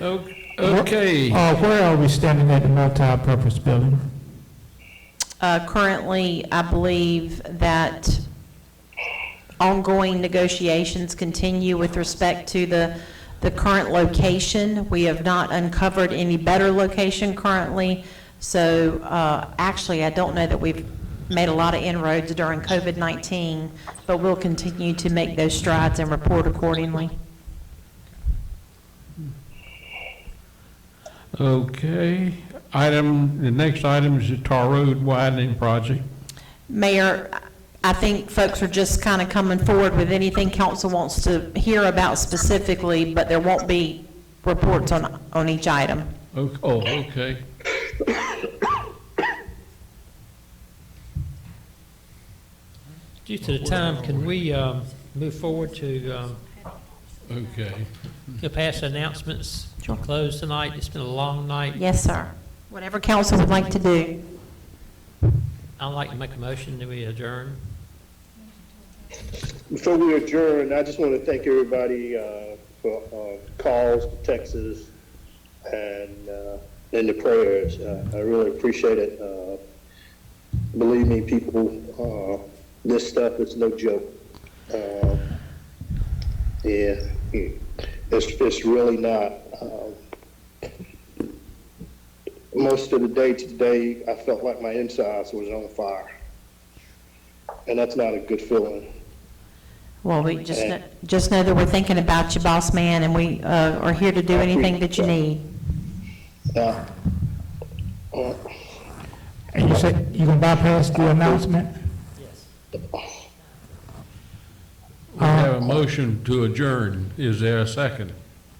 O- Okay, Uh, where are we standing at the multi-purpose building? Uh, Currently, I believe that ongoing negotiations continue with respect to the, the current location. We have not uncovered any better location currently, so uh, actually, I don't know that we've made a lot of inroads during COVID-19, but we'll continue to make those strides and report accordingly. okay. Item, the next item is the Tar Road widening project. Mayor, I think folks are just kind of coming forward with anything council wants to hear about specifically, but there won't be reports on, on each item. O- Oh, okay. Due to the time, can we um, move forward to um, Okay. go past announcements? Sure. Close tonight, it's been a long night. Yes, sir. Whatever council would like to do. I'd like to make a motion that we adjourn. Before we adjourn, I just want to thank everybody uh, for uh, calls, texts, and, uh, and the prayers. Uh, I really appreciate it. Uh, Believe me, people, uh, this stuff is no joke. Uh, Yeah, it's, it's really not. Uh, Most of the day today, I felt like my insides was on fire, and that's not a good feeling. Well, we just, kn- just know that we're thinking about you, boss man, and we uh, are here to do anything that you need. Uh, uh, And you said you gonna bypass the announcement? We have a motion to adjourn. Is there a second?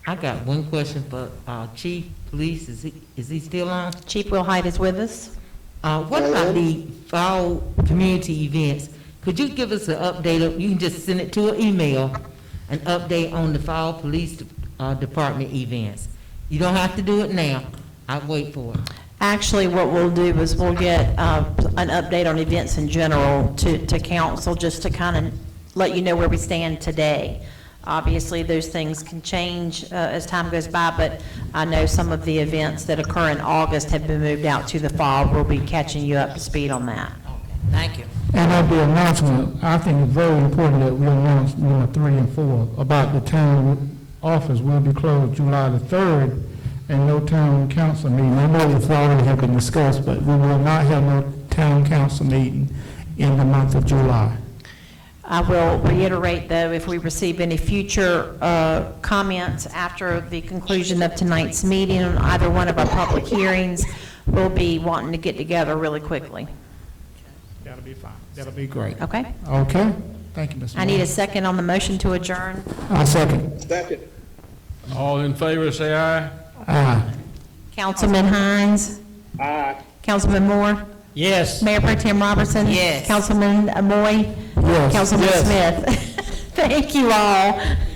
I got one question for uh, Chief Police, is he, is he still on? Chief Will Hyde is with us. Uh, What about the fall community events? Could you give us an update, of- you can just send it to an email, an update on the fall police uh, department events? You don't have to do it now, I'll wait for it. Actually, what we'll do is we'll get uh, an update on events in general to, to council, just to kind of let you know where we stand today. Obviously, those things can change uh, as time goes by, but I know some of the events that occur in August have been moved out to the fall. We'll be catching you up to speed on that. Thank you. And of the announcement, I think it's very important that we announce number three and four about the town office will be closed July the third and no town council meeting. I know it's already have been discussed, but we will not have no town council meeting in the month of July. I will reiterate, though, if we receive any future uh, comments after the conclusion of tonight's meeting on either one of our public hearings, we'll be wanting to get together really quickly, That'll be fine. That'll be great. okay? Okay? Thank you, Mr. I need a Mayor. second on the motion to adjourn. I second. Second. All in favor, say aye. Aye. Councilman Hines? Aye. Councilman Moore? Yes. Mayor Pro Tem Robertson? Yes. Councilman Moy? Yes. Councilman Smith? Thank you all.